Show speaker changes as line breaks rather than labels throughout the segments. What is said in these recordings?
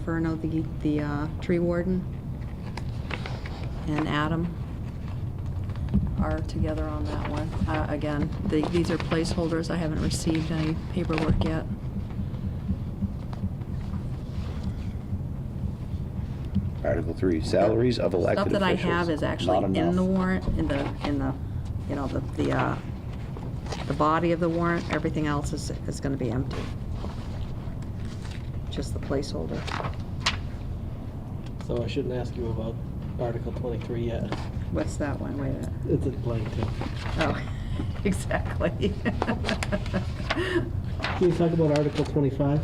Inferno, the, the uh, tree warden, and Adam are together on that one. Uh, Again, the- these are placeholders. I haven't received any paperwork yet.
Article three, salaries of elected
Stuff
officials.
that I have is
Not
actually in the
enough.
warrant, in the, in the, you know, the, the, uh, the body of the warrant. Everything else is, is gonna be empty. Just the placeholder.
So I shouldn't ask you about Article 23 yet.
What's that one? Wait a minute.
It's in blank too.
Oh, exactly.
Can we talk about Article 25?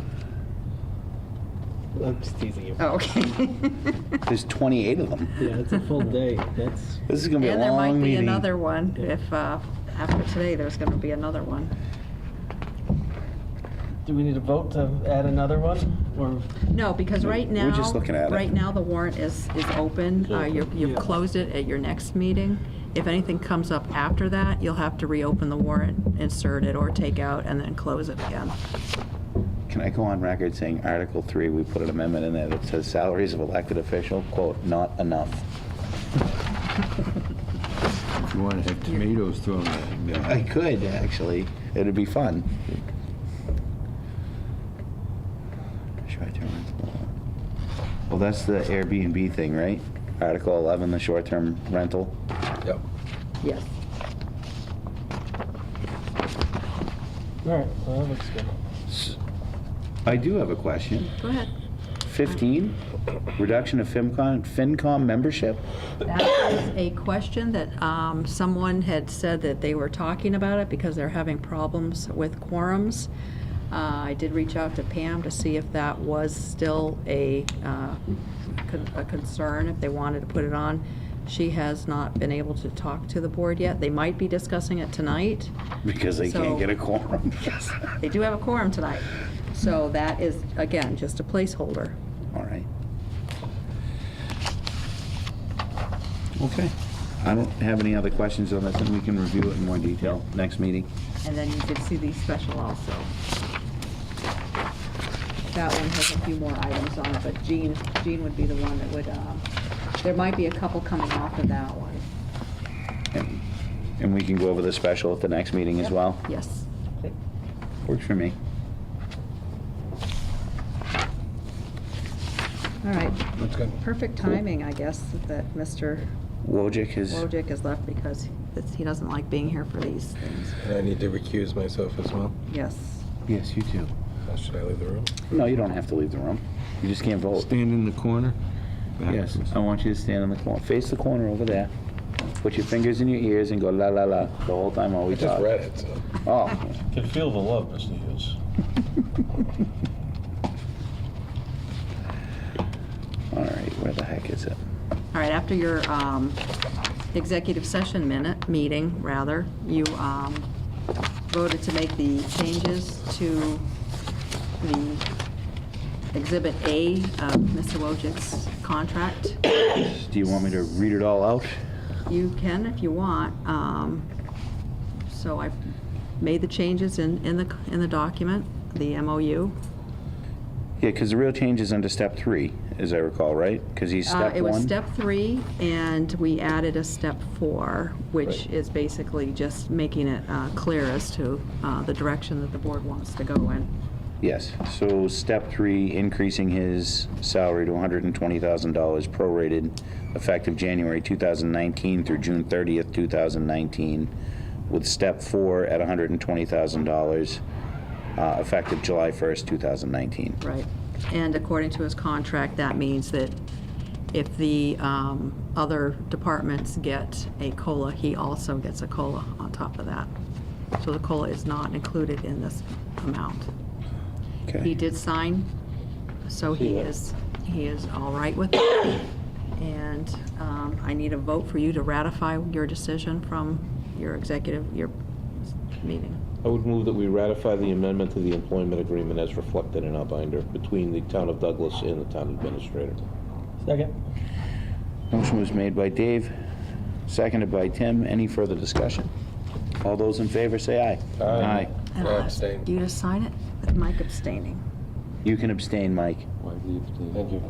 I'm just teasing you.
Oh, Okay.
There's 28 of them.
Yeah, it's a full day. That's,
This is going to be a
And there might
long
be
meeting.
another one if, uh, after today, there's going to be another one.
do we need a vote to add another one? Or,
No, because right now.
We're just looking at it.
Right now, the warrant is, is open. Uh, you've- You've
Yeah.
closed it at your next meeting. If anything comes up after that, you'll have to reopen the warrant, insert it or take out, and then close it again.
Can I go on record saying Article three, we put an amendment in there that says salaries of elected official, quote, not enough.
If you want to have tomatoes thrown at it.
I could, actually. It'd be fun. Short-term rental. Well, that's the Airbnb thing, right? Article 11, the short-term rental.
Yep.
Yes.
all right, well, that looks good.
S- I do have a question.
Go ahead.
15, reduction of FinCon, FinCom membership?
That is a question that um, someone had said that they were talking about it because they're having problems with quorums. Uh, I did reach out to Pam to see if that was still a uh, con- a concern, if they wanted to put it on. She has not been able to talk to the board yet. They might be discussing it tonight.
Because they
So-
can't get a quorum.
They do have a quorum tonight. So that is, again, just a placeholder.
All right. Okay. I don't have any other questions on this, and we can review it in more detail next meeting.
And then you can see the special also. That one has a few more items on it, but Jean, Jean would be the one that would, um, there might be a couple coming off of that one.
And and we can go over the special at the next meeting as well.
Yes.
Works for me.
All right.
That's good.
Perfect timing, I guess, that Mr.
Wojcik is,
Wojcik has left because it's- he doesn't like being here for these things.
And I need to recuse myself as well.
Yes.
yes, you too.
Uh, Should I leave the room?
No, you don't have to leave the room. You just can't vote.
Stand in the corner. Back
Yes,
to us.
I want you to stand in the corner, face the corner over there. Put your fingers in your ears and go la la la the whole time while we
I
talk.
just read it, so.
Oh,
Can feel the love, Mr. Hughes.
all right, where the heck is it?
All right, after your um, executive session minute, meeting, rather, you um, voted to make the changes to the Exhibit A of Mr. Wojcik's contract.
Do you want me to read it all out?
You can if you want. um, So I made the changes in, in the, in the document, the MOU.
Yeah, because the real change is under step three, as I recall, right? Because he's
Uh,
step
It was
one.
step three, and we added a step four, which is basically just making it uh, clear as to uh, the direction that the board wants to go in.
Yes, so step three, increasing his salary to $120,000 prorated, effective January 2019 through June 30th, 2019, with step four at $120,000, uh, effective July 1st, 2019.
Right. And according to his contract, that means that if the um, other departments get a COLA, he also gets a COLA on top of that. So the COLA is not included in this amount. He
Okay.
did sign, so he
Yeah.
is, he is all right with it. And um, I need a vote for you to ratify your decision from your executive, your meeting.
I would move that we ratify the amendment to the employment agreement as reflected in our binder between the town of Douglas and the town administrator.
Second?
Motion was made by Dave, seconded by Tim. Any further discussion? All those in favor, say aye.
Aye.
And
I
I'll ask
abstain.
You to sign it with Mike abstaining.
You can abstain, Mike.
I leave the.
Thank you.